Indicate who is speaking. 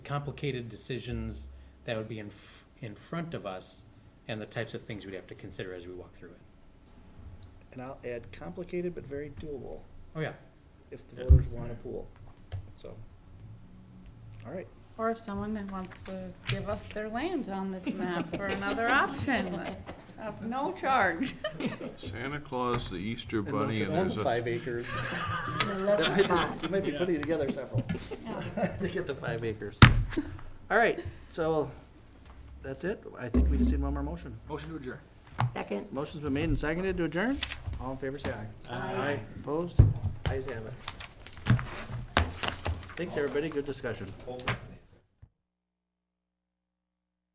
Speaker 1: complicated decisions that would be in, f- in front of us and the types of things we'd have to consider as we walk through it.
Speaker 2: And I'll add complicated but very doable
Speaker 1: Oh, yeah.
Speaker 2: if the
Speaker 1: Yes.
Speaker 2: voters want a pool. So, all right.
Speaker 3: Or if someone that wants to give us their land on this map for another option of no charge.
Speaker 4: Santa Claus, the Easter
Speaker 2: And those
Speaker 4: Bunny,
Speaker 2: that
Speaker 4: and
Speaker 2: own
Speaker 4: there's a,
Speaker 2: Five acres. That might be-
Speaker 5: Leprechaun.
Speaker 2: You might be putting together several
Speaker 3: Yeah.
Speaker 2: to get to five acres. All right, so that's it. I think we just need one more motion.
Speaker 5: Second.
Speaker 2: Motion's been made and seconded to adjourn. All in favor, say aye. Aye. Opposed? Ayes have it. Thanks, everybody. Good discussion.